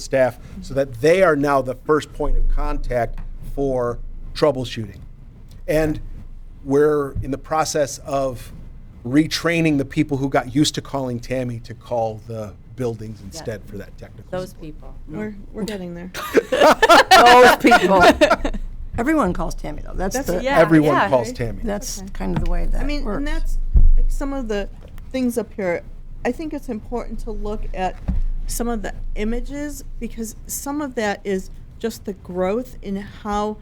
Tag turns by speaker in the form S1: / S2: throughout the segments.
S1: staff so that they are now the first point of contact for troubleshooting. And we're in the process of retraining the people who got used to calling Tammy to call the buildings instead for that technical.
S2: Those
S1: support.
S2: people.
S3: We're, we're getting there.
S4: Those people. Everyone calls Tammy though. That's the,
S2: yeah.
S1: Everyone calls Tammy.
S4: that's kind of the way that
S3: I mean,
S4: works.
S3: and that's like some of the things up here. I think it's important to look at some of the images because some of that is just the growth in how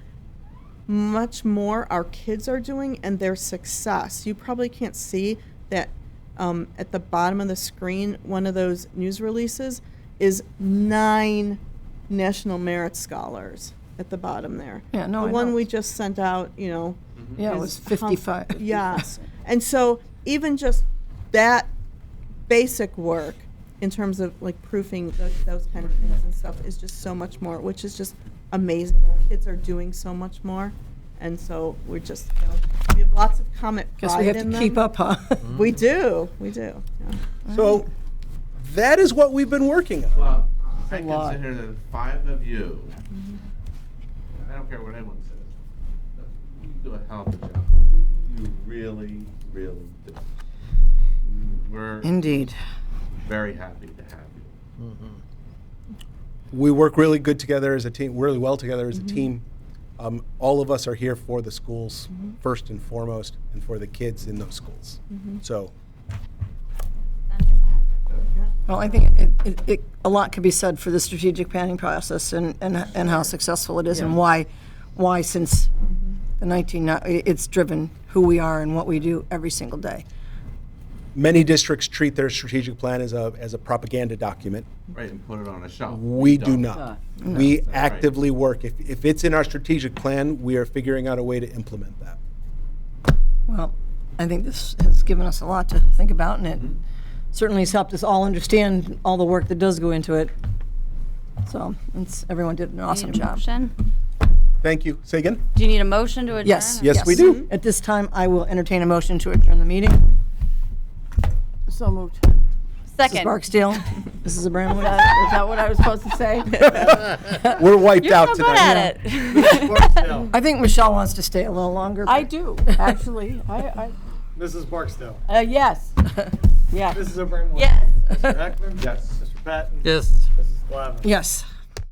S3: much more our kids are doing and their success. You probably can't see that um, at the bottom of the screen, one of those news releases is nine national merit scholars at the bottom there.
S4: Yeah, no,
S3: the
S4: I
S3: one
S4: know.
S3: we just sent out, you know,
S4: yeah, it was
S3: is how-
S4: 55.
S3: Yes. And so even just that basic work in terms of like proofing those, those kind of things and stuff is just so much more, which is just amazing. Our kids are doing so much more. And so we're just, you know, we have lots of comment
S4: Guess we
S3: pride
S4: have
S3: in
S4: to
S3: them.
S4: keep up, huh?
S3: We do, we do. yeah.
S1: So that is what we've been working on.
S5: Well, I
S4: a lot.
S5: consider the five of you. I don't care what anyone says. but You do a hell of a job. You really, really do. We're
S4: Indeed.
S5: very happy to have you.
S1: we work really good together as a team, really well together as a team. Um, all of us are here for the schools first and foremost, and for the kids in those schools. So
S4: Well, I think it, it, it, a lot could be said for the strategic planning process and, and, and how successful it is and why, why since
S3: Mm-hmm.
S4: the 19, i- it's driven who we are and what we do every single day.
S1: many districts treat their strategic plan as a as a propaganda document.
S5: Right, and put it on a shelf.
S1: We do
S5: Don't.
S1: not. We
S5: right.
S1: actively work. If, if it's in our strategic plan, we are figuring out a way to implement that.
S4: Well, I think this has given us a lot to think about, and it
S1: Mm-hmm.
S4: certainly has helped us all understand all the work that does go into it. So, it's, everyone did an awesome
S2: Need a
S4: job.
S2: motion?
S1: Thank you. Say again?
S2: Do you need a motion to adjourn?
S4: Yes.
S1: Yes, we do.
S4: At this time, I will entertain a motion to adjourn the meeting.
S6: So moved.
S4: Mrs.
S2: Second.
S4: Barksdale, Mrs.
S6: Uh,
S4: Abramowitz.
S6: Is that what I was supposed to say?
S2: Uh,
S1: We're wiped
S2: You're
S1: out
S2: so good
S1: tonight.
S2: at it.
S4: I think Michelle wants to stay a little longer.
S6: I
S4: but-
S6: do, actually. I,
S7: Mrs. Barksdale.
S6: I, uh, yes, yes.
S7: Mrs. Abramowitz.
S2: Yes.
S7: Mr. Heckman. Yes. Mr. Patton.
S8: Yes.
S7: Mrs. Glavin.
S4: Yes.